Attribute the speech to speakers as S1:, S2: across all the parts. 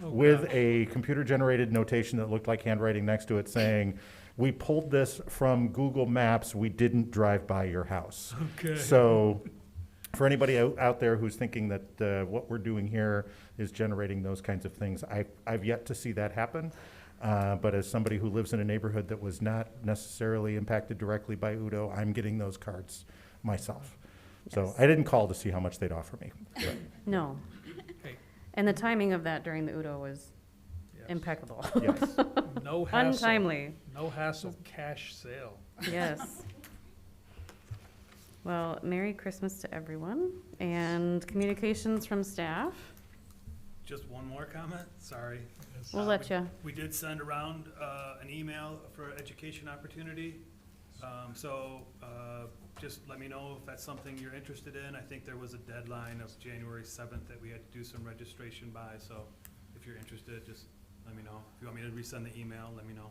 S1: with a computer-generated notation that looked like handwriting next to it saying, "We pulled this from Google Maps. We didn't drive by your house."
S2: Okay.
S1: So, for anybody out, out there who's thinking that uh, what we're doing here is generating those kinds of things, I, I've yet to see that happen. Uh, but as somebody who lives in a neighborhood that was not necessarily impacted directly by Udo, I'm getting those cards myself. So I didn't call to see how much they'd offer me. but-
S3: No.
S2: Okay.
S3: And the timing of that during the Udo was
S2: Yes.
S3: impeccable.
S1: Yes.
S2: No hassle.
S3: Untimely,
S2: No hassle, cash sale.
S3: yes. Well, Merry Christmas to everyone and communications from staff.
S4: Just one more comment, sorry.
S2: Uh,
S4: Uh,
S3: We'll let you.
S4: We did send around uh, an email for education opportunity. Um, So uh, just let me know if that's something you're interested in. I think there was a deadline of January 7th that we had to do some registration by, so if you're interested, just let me know. If you want me to resend the email, let me know.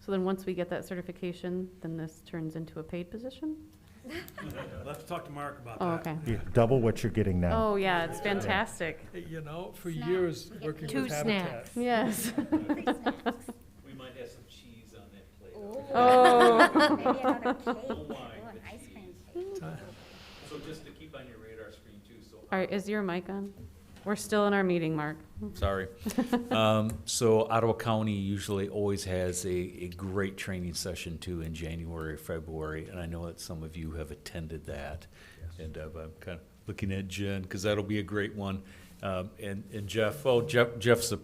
S3: So then, once we get that certification, then this turns into a paid position?
S4: Let's talk to Mark about that.
S3: Oh, okay.
S1: You Double what you're getting now.
S3: Oh, yeah, it's fantastic.
S2: You know, for years, working
S5: Two
S2: with Habitat.
S3: Yes.
S6: We might have some cheese on that plate.
S3: Oh.
S5: Maybe another cake,
S6: Wine,
S5: Ooh,
S6: the
S5: an ice cream cake.
S6: So just to keep on your radar screen too, so.
S3: All right, is your mic on? We're still in our meeting, Mark.
S7: Sorry. Um, so Ottawa County usually always has a, a great training session too in January, February, and I know that some of you have attended that. And uh, I'm kind of looking at Jen, because that'll be a great one. Um, and, and Jeff, well, Jeff, Jeff's a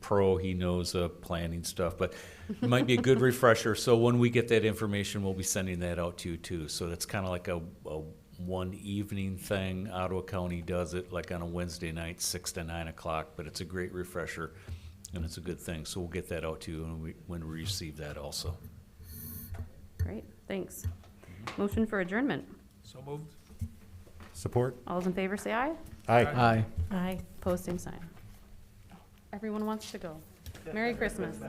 S7: pro, he knows uh, planning stuff, but it might be a good refresher. So when we get that information, we'll be sending that out to you too. So that's kind of like a, a one evening thing. Ottawa County does it like on a Wednesday night, six to nine o'clock, but it's a great refresher and it's a good thing. So we'll get that out to you when we, when we receive that also.
S3: Great, thanks. Motion for adjournment.
S2: So moved.
S1: Support?
S3: All those in favor, say aye.
S1: Aye.
S2: Aye.
S3: Aye. Pose same sign. Everyone wants to go. Merry Christmas.